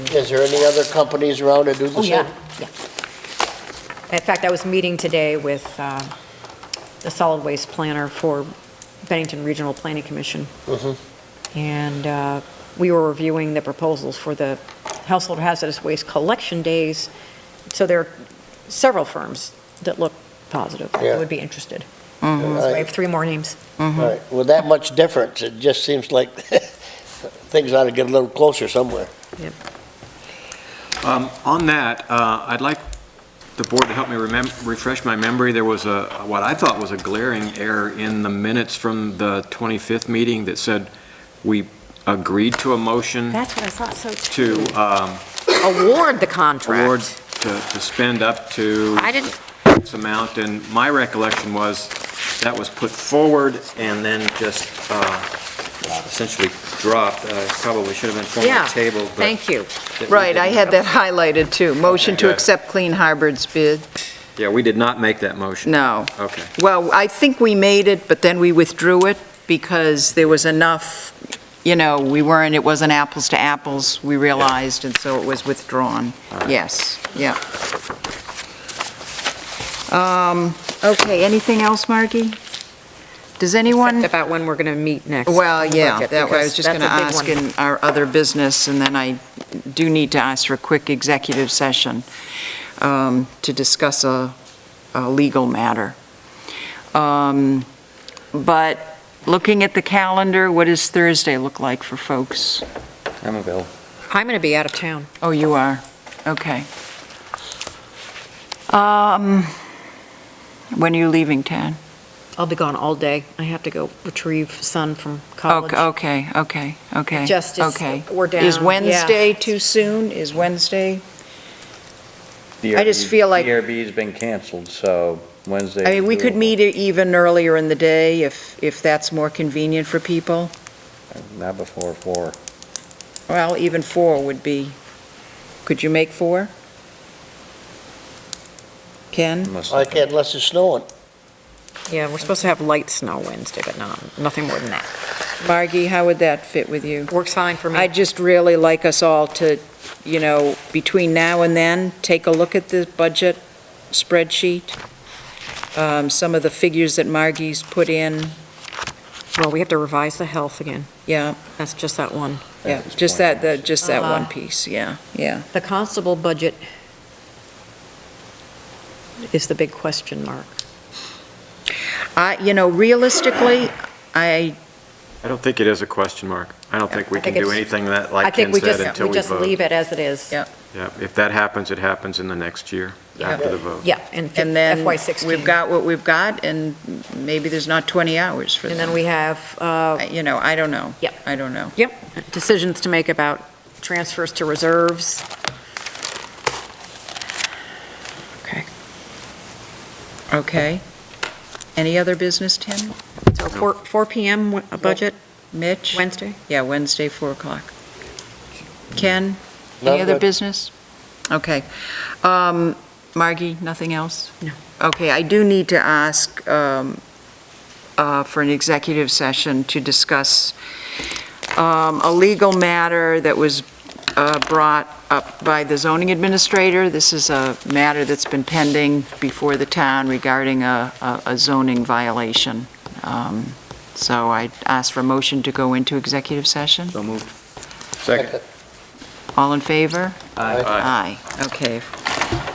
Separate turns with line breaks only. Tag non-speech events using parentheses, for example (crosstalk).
Is there any other companies around that do
Oh,
the
yeah,
same?
yeah. In fact, I was meeting today with uh, the solid waste planner for Bennington Regional Planning Commission.
Mm-hmm.
And uh, we were reviewing the proposals for the household hazardous waste collection days. So there are several firms that look positive,
Yeah.
that would be interested. So I have
Right,
three more names.
right. With that much difference, it just seems like (laughs) things ought to get a little closer somewhere.
Um, On that, uh, I'd like the board to help me remember, refresh my memory. There was a, what I thought was a glaring error in the minutes from the 25th meeting that said we agreed to a motion
That's what I thought, so.
to um,
award the
award,
contract.
to to spend up to
I didn't,
this amount, and my recollection was that was put forward and then just uh, essentially dropped. Uh, Probably should have been
yeah,
formally tabled, but...
thank you.
that we
Right, I
didn't.
had that highlighted too. Motion to
Okay.
accept Clean Harbor's bid.
Yeah, we did not make that motion.
No.
Okay.
Well, I think we made it, but then we withdrew it because there was enough, you know, we weren't, it wasn't apples to apples, we realized, and so it was withdrawn. Yes, yeah. Um, Okay, anything else, Margie? Does anyone?
Except About when we're going to meet next.
Well, yeah,
Budget,
that way, I was
because
just going to
that's a
ask
big one.
in our other business, and then I do need to ask for a quick executive session um, to discuss a, a legal matter. Um, But looking at the calendar, what does Thursday look like for folks?
I'm available.
I'm going to be out of town.
Oh, you are, okay. Um, When are you leaving, Tad?
I'll be gone all day. I have to go retrieve son from college.
Okay, okay, okay, okay.
Just is-
okay.
we're
Is
down, yeah.
Wednesday too soon? Is Wednesday?
The
I just
RB
feel like-
The RB's been canceled, so Wednesday.
I mean, we could
doable.
meet e- even earlier in the day if, if that's more convenient for people.
Not before four.
Well, even four would be, could you make four? Ken?
unless-
I can't unless it's snowing.
Yeah, we're supposed to have light snow Wednesday, but not, nothing more than that.
Margie, how would that fit with you?
Works fine Mm-hmm. for
I'd
me.
just really like us all to, you know, between now and then, take a look at the budget spreadsheet, um, some of the figures that Margie's put in,
Well, we have to revise the health again.
yeah,
That's just that one.
yeah,
At this
just that,
point,
the- just that one
Uh-huh.
piece, yeah, yeah.
The constable budget is the big question mark.
I, you know, realistically, I,
I don't think it is a question mark. I don't think we
I
can
think
do
it's-
anything that,
I
like
think
Ken
we
said,
just,
until
we
we
just leave
vote.
it as it is.
Yeah.
Yeah, if that happens, it happens in the next year, after the vote.
Yeah, and fi-
and then
FY '16.
we've got what we've got, and maybe there's not 20 hours for
And
them.
then we have uh,
I- You know, I don't know.
Yep.
I don't know.
decisions to make about transfers to reserves.
Okay. Okay. Any other business, Tim?
So 4, 4 PM w- a budget
Mitch?
Wednesday?
Yeah, Wednesday, 4 o'clock. Ken,
Not
any other
good.
business? Okay. Um, Margie, nothing else?
No.
Okay, I do need to ask um, uh, for an executive session to discuss um, a legal matter that was uh, brought up by the zoning administrator. This is a matter that's been pending before the town regarding a a- a zoning violation. Um, So I ask for a motion to go into executive session.
So moved. Second.
All in favor?
Aye.
Aye. Okay,